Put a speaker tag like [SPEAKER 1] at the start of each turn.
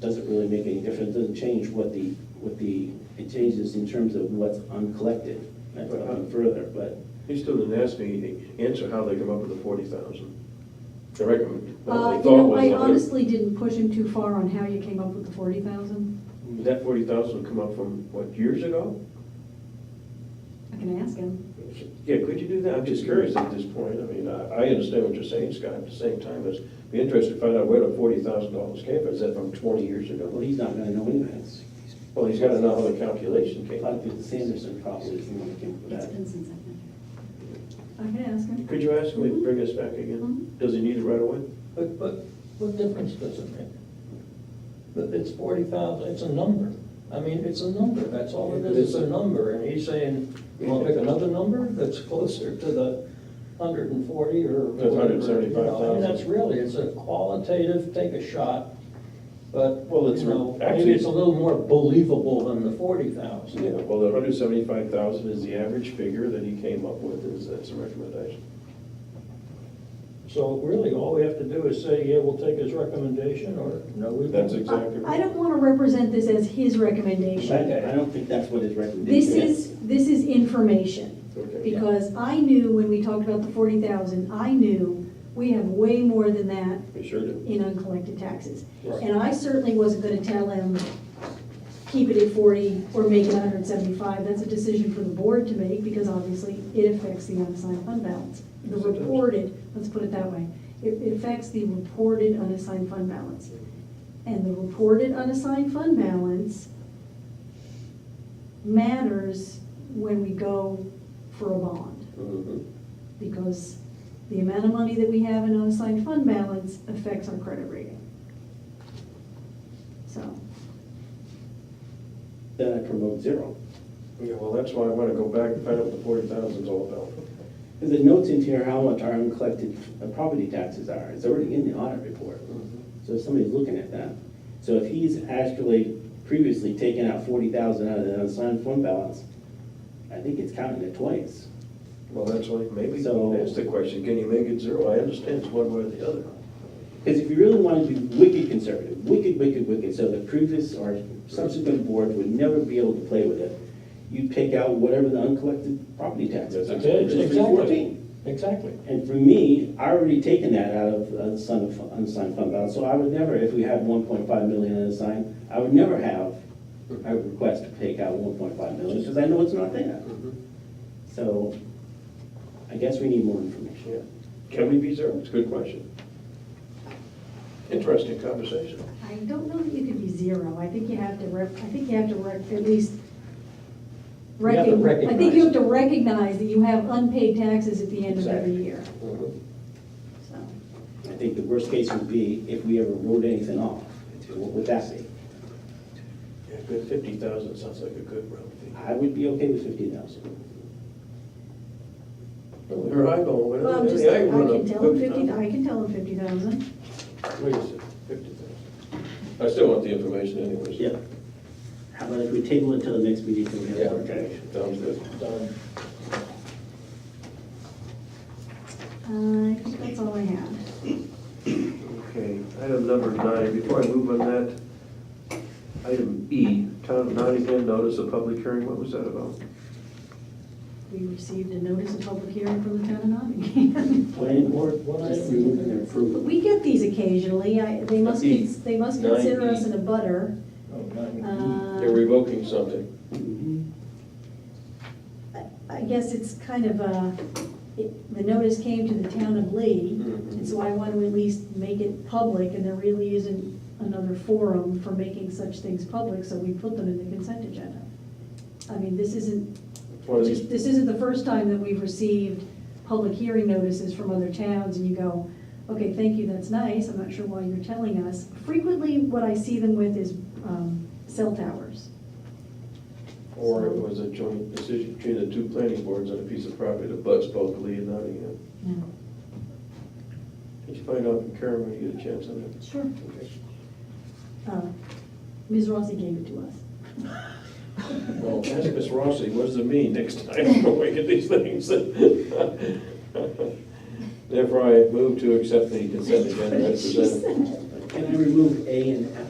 [SPEAKER 1] doesn't really make any difference, doesn't change what the, what the, it changes in terms of what's uncollected. That's gone further, but
[SPEAKER 2] He still didn't ask me, answer how they come up with the forty thousand. I reckon. what
[SPEAKER 3] Uh,
[SPEAKER 2] they
[SPEAKER 3] you
[SPEAKER 2] thought
[SPEAKER 3] know,
[SPEAKER 2] was
[SPEAKER 3] I
[SPEAKER 2] that-
[SPEAKER 3] honestly didn't push him too far on how you came up with the forty thousand.
[SPEAKER 2] That forty thousand come up from, what, years ago?
[SPEAKER 3] I can ask him.
[SPEAKER 2] Yeah, could you do that? I'm just curious at this point. I mean, I, I understand what you're saying, Scott, at the same time, it's, be interested to find out where the forty thousand dollars came from. Is that from twenty years
[SPEAKER 1] well,
[SPEAKER 2] ago?
[SPEAKER 1] he's not gonna know anyways.
[SPEAKER 2] Well, he's gotta know how the calculation
[SPEAKER 1] I
[SPEAKER 2] came.
[SPEAKER 1] thought that Sanderson probably is the one that came up with
[SPEAKER 3] It's
[SPEAKER 1] that.
[SPEAKER 3] been since I've been here. I can ask him.
[SPEAKER 2] Could you ask him to bring us back again?
[SPEAKER 3] Mm-hmm.
[SPEAKER 2] Does he need it right away?
[SPEAKER 4] But, but what difference does it make? But it's forty thousand, it's a number. I mean, it's a number, that's all it is, it's a number, and he's saying, you wanna pick another number that's closer to the hundred and forty or
[SPEAKER 2] That's
[SPEAKER 4] whatever. you know, I mean,
[SPEAKER 2] 175,000.
[SPEAKER 4] That's really, it's a qualitative, take a shot, but,
[SPEAKER 2] Well, it's
[SPEAKER 4] you know,
[SPEAKER 2] actually-
[SPEAKER 4] maybe it's a little more believable than the forty thousand.
[SPEAKER 2] Yeah, well, the hundred seventy-five thousand is the average figure that he came up with as, as a recommendation.
[SPEAKER 4] So really, all we have to do is say, yeah, we'll take his recommendation, or no, we won't.
[SPEAKER 2] That's exactly.
[SPEAKER 3] I I don't want to represent this as his recommendation.
[SPEAKER 1] I I don't think that's what his
[SPEAKER 3] This
[SPEAKER 1] recommendation is.
[SPEAKER 3] is, this is information.
[SPEAKER 2] Okay.
[SPEAKER 3] Because I knew when we talked about the forty thousand, I knew we have way more than that
[SPEAKER 2] We sure do.
[SPEAKER 3] in uncollected taxes.
[SPEAKER 4] Right.
[SPEAKER 3] And I certainly wasn't gonna tell him, keep it at forty or make it hundred and seventy-five. That's a decision for the board to make, because obviously it affects the unassigned fund balance. The
[SPEAKER 2] Yes, it does.
[SPEAKER 3] reported, let's put it that way, it it affects the reported unassigned fund balance. And the reported unassigned fund balance matters when we go for a bond
[SPEAKER 2] Mhm.
[SPEAKER 3] because the amount of money that we have in unassigned fund balance affects our credit rating. So,
[SPEAKER 1] Then I promote zero.
[SPEAKER 2] Yeah, well, that's why I want to go back and find out what the forty thousand's all about.
[SPEAKER 1] Because the notes in here, how much our uncollected uh, property taxes are, it's already in the audit report. So somebody's looking at that. So if he's actually previously taken out forty thousand out of the unassigned fund balance, I think it's counting it twice.
[SPEAKER 2] Well, that's why, maybe,
[SPEAKER 1] So-
[SPEAKER 2] that's the question, can you make it zero? I understand it's one way or the other.
[SPEAKER 1] Because if you really wanted to be wicked conservative, wicked, wicked, wicked, so the previous or subsequent boards would never be able to play with it, you'd take out whatever the uncollected property taxes.
[SPEAKER 2] That's
[SPEAKER 1] are,
[SPEAKER 2] okay,
[SPEAKER 1] which is
[SPEAKER 4] Exactly,
[SPEAKER 1] 314.
[SPEAKER 4] exactly.
[SPEAKER 1] And for me, I already taken that out of unassigned, unassigned fund balance, so I would never, if we had one point five million unassigned, I would never have a request to take out one point five million, because I know it's not there. So, I guess we need more information.
[SPEAKER 2] Yeah. Can we be zero? It's a good question. Interesting conversation.
[SPEAKER 3] I don't know that you could be zero, I think you have to rep, I think you have to rec, at least.
[SPEAKER 4] You have to
[SPEAKER 3] recog- I think you
[SPEAKER 4] recognize.
[SPEAKER 3] have to recognize that you have unpaid taxes at the end of every
[SPEAKER 4] Exactly.
[SPEAKER 3] year, so.
[SPEAKER 1] I think the worst case would be if we ever wrote anything off, what would that be?
[SPEAKER 2] Yeah, good, fifty thousand sounds like a good round
[SPEAKER 1] I would be okay with fifty thousand.
[SPEAKER 2] figure. Or I go, whatever.
[SPEAKER 3] Well, I'm just,
[SPEAKER 2] Yeah,
[SPEAKER 3] I
[SPEAKER 2] run
[SPEAKER 3] can
[SPEAKER 2] up
[SPEAKER 3] tell him fifty,
[SPEAKER 2] 50,000.
[SPEAKER 3] I can tell him fifty thousand.
[SPEAKER 2] Wait a second, fifty thousand. I still want the information anyways.
[SPEAKER 1] Yeah. How about if we table it till the next meeting, till we have
[SPEAKER 2] Yeah,
[SPEAKER 1] more
[SPEAKER 2] okay,
[SPEAKER 1] direction?
[SPEAKER 2] sounds good.
[SPEAKER 4] Done.
[SPEAKER 3] Uh, I think that's all I have.
[SPEAKER 2] Okay, item number nine, before I move on that, item E, town of Nottingham notice of public hearing, what was that about?
[SPEAKER 3] We received a notice of public hearing from the town of Nottingham.
[SPEAKER 1] Planning board,
[SPEAKER 4] What, what
[SPEAKER 3] Just-
[SPEAKER 4] item?
[SPEAKER 3] But We get these occasionally, I, they must, cons- they must consider us in a butter.
[SPEAKER 4] Oh, nine.
[SPEAKER 3] Uh,
[SPEAKER 2] They're revoking something.
[SPEAKER 1] Mm-hmm.
[SPEAKER 3] I- Uh, I guess it's kind of a, it- the notice came to the town of Lee, and so I want to at least make it public, and there really isn't another forum for making such things public, so we put them in the consent agenda. I mean, this isn't,
[SPEAKER 2] One of
[SPEAKER 3] just-
[SPEAKER 2] these-
[SPEAKER 3] this isn't the first time that we've received public hearing notices from other towns, and you go, okay, thank you, that's nice, I'm not sure why you're telling us. Frequently, what I see them with is um, cell towers.
[SPEAKER 2] Or it was a joint decision between the two planning boards on a piece of property that butts both Lee and Nottingham.
[SPEAKER 3] Yeah.
[SPEAKER 2] Did you find out from Karen when you get a chance on that?
[SPEAKER 3] Sure.
[SPEAKER 2] Okay.
[SPEAKER 3] Uh, Ms. Rossi gave it to us.
[SPEAKER 2] Well, ask Miss Rossi, what does it mean next time when we get these things? Therefore, I move to accept the consent agenda as
[SPEAKER 3] She
[SPEAKER 2] presented.
[SPEAKER 3] said.
[SPEAKER 1] Can I remove A and F?